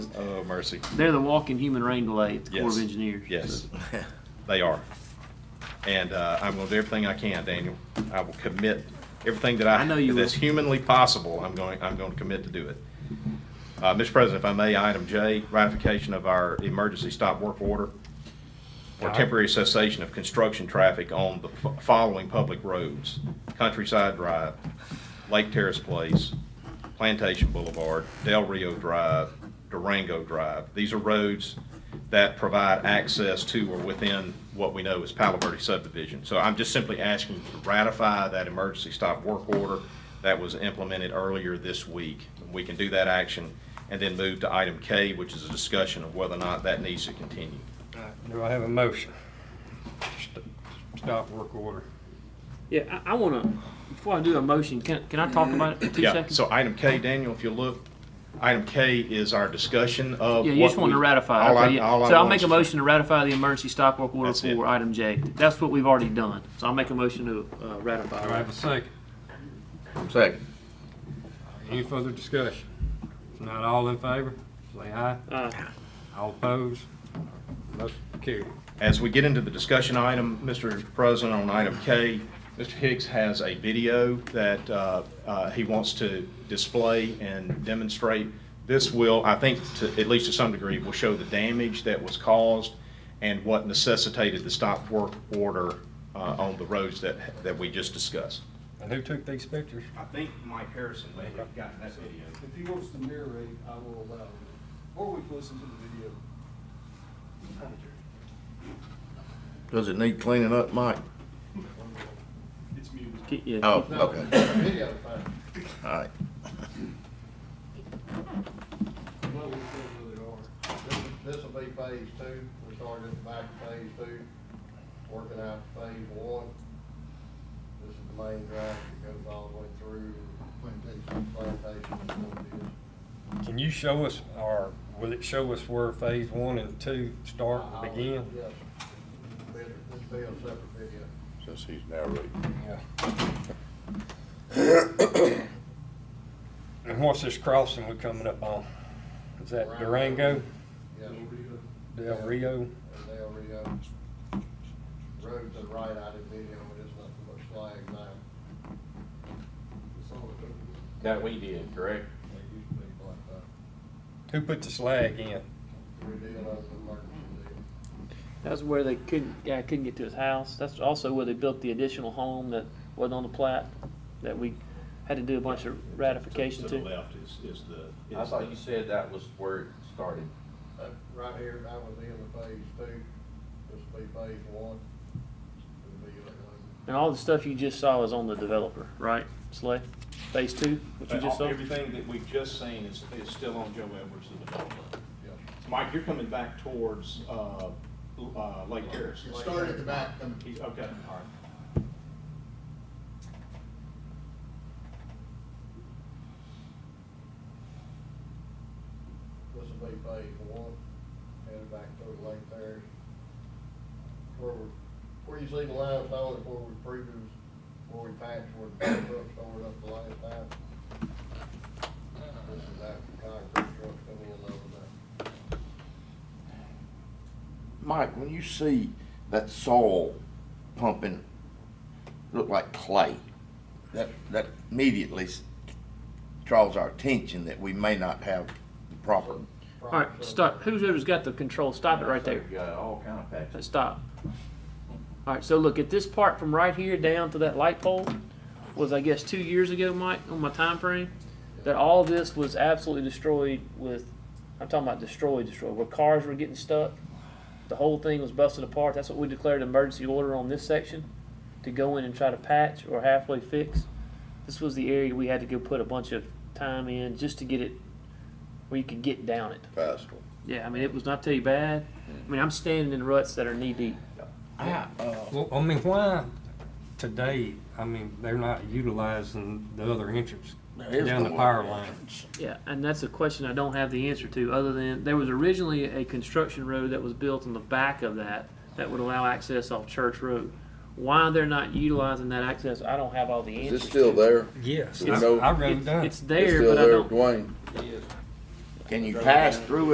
Oh, mercy. They're the walking human rain delay at the Corps of Yes. Engineers. Yes, they are. And uh, I'm going to do everything I can, Daniel. I will commit everything that I, I know you that's will. humanly possible, I'm going, I'm going to commit to do it. Uh, Mr. President, if I may, item J, ratification of our emergency stop work order for temporary cessation of construction traffic on the f- following public roads: Countryside Drive, Lake Terrace Place, Plantation Boulevard, Del Rio Drive, Durango Drive. These are roads that provide access to or within what we know as Palo Verde subdivision. So I'm just simply asking you to ratify that emergency stop work order that was implemented earlier this week. We can do that action and then move to item K, which is a discussion of whether or not that needs to continue. Do I have a motion? St- Stop work order. Yeah, I, I wanna, before I do a motion, can, can I talk about it for two Yeah, seconds? so item K, Daniel, if you look, item K is our discussion of. Yeah, you just what want to we- ratify. all I- Okay, yeah. all I So I'll want make a is- motion to ratify the emergency stop work order That's it. for item J. That's what we've already done. So I'll make a motion to uh, ratify. Do I have a second? Second. Any further discussion? If not all in favor, say aye. Uh, All opposed? Motion carried. As we get into the discussion item, Mr. President, on item K, Mr. Hicks has a video that uh, uh, he wants to display and demonstrate. This will, I think, to- at least to some degree, will show the damage that was caused and what necessitated the stop work order uh, on the roads that, that we just discussed. And who took these pictures? I think Mike Harrison may have gotten that video. If he wants to narrate, I will allow him, or we can listen to the video. Does it need cleaning up, Mike? It's muted. keep- yeah, Oh, No, okay, Video, fine. all right. Well, we still really are. This will be phase two, we're starting at the back of phase two, working out phase one. This is the main drive that goes all the way through. Plantation. Plantation. and what it is. Can you show us, or will it show us where phase one and two start I'll- and begin? Yes. This be a separate video. Since he's narrating. Yeah. And what's this crossing we're coming up on? Is that Durango, Yes. Del Rio? And they already, uh, roads are right out of video, but it's not much flag now. It's all the, they That we did, correct? used to be black, but Who put the slag in? we did an open emergency deal. That's where they couldn't, guy couldn't get to his house. That's also where they built the additional home that wasn't on the plat, that we had to do a bunch of ratification To the to. left is, is the. I is thought the- you said that was where it started. Uh, Right here, that was the end of phase two, this will be phase one. It'll be like, uh, And all the stuff you just saw is on the developer, right, Slay? Phase two, what you just saw? Uh, Everything that we've just seen is, is still on Joe Edwards, the developer. yeah. Mike, you're coming back towards, uh, uh, Lake Terrace. Start at the back, come He's, okay, all right. This will be phase one, headed back through the Lake Terrace. Where we, where you see the limestone is where we previous, where we patched, where the fire truck started up the last time. This is after concrete trucks come in over there. Mike, when you see that soil pumping, look like clay, that, that immediately s- draws our attention that we may not have the proper. All right, stop. Who's ever's got the control? Stop it right there. You got all kind of patches. Let's stop. All right, so look, at this part from right here down to that light pole was, I guess, two years ago, Mike, on my time frame, that all this was absolutely destroyed with, I'm talking about destroyed, destroyed, where cars were getting stuck. The whole thing was busted apart. That's what we declared emergency order on this section, to go in and try to patch or halfway fix. This was the area we had to go put a bunch of time in just to get it where you could get down it. Possible. Yeah, I mean, it was not too bad. I mean, I'm standing in ruts that are knee deep. Well, I mean, why today, I mean, they're not utilizing the other entrance down the power line? Yeah, and that's a question I don't have the answer to, other than there was originally a construction road that was built on the back of that that would allow access off Church Road. Why they're not utilizing that access, I don't have all the answers. to. there? Yes, I It's- I wrote it It's, down. it's there, but I don't. Dwayne? Can you pass through it?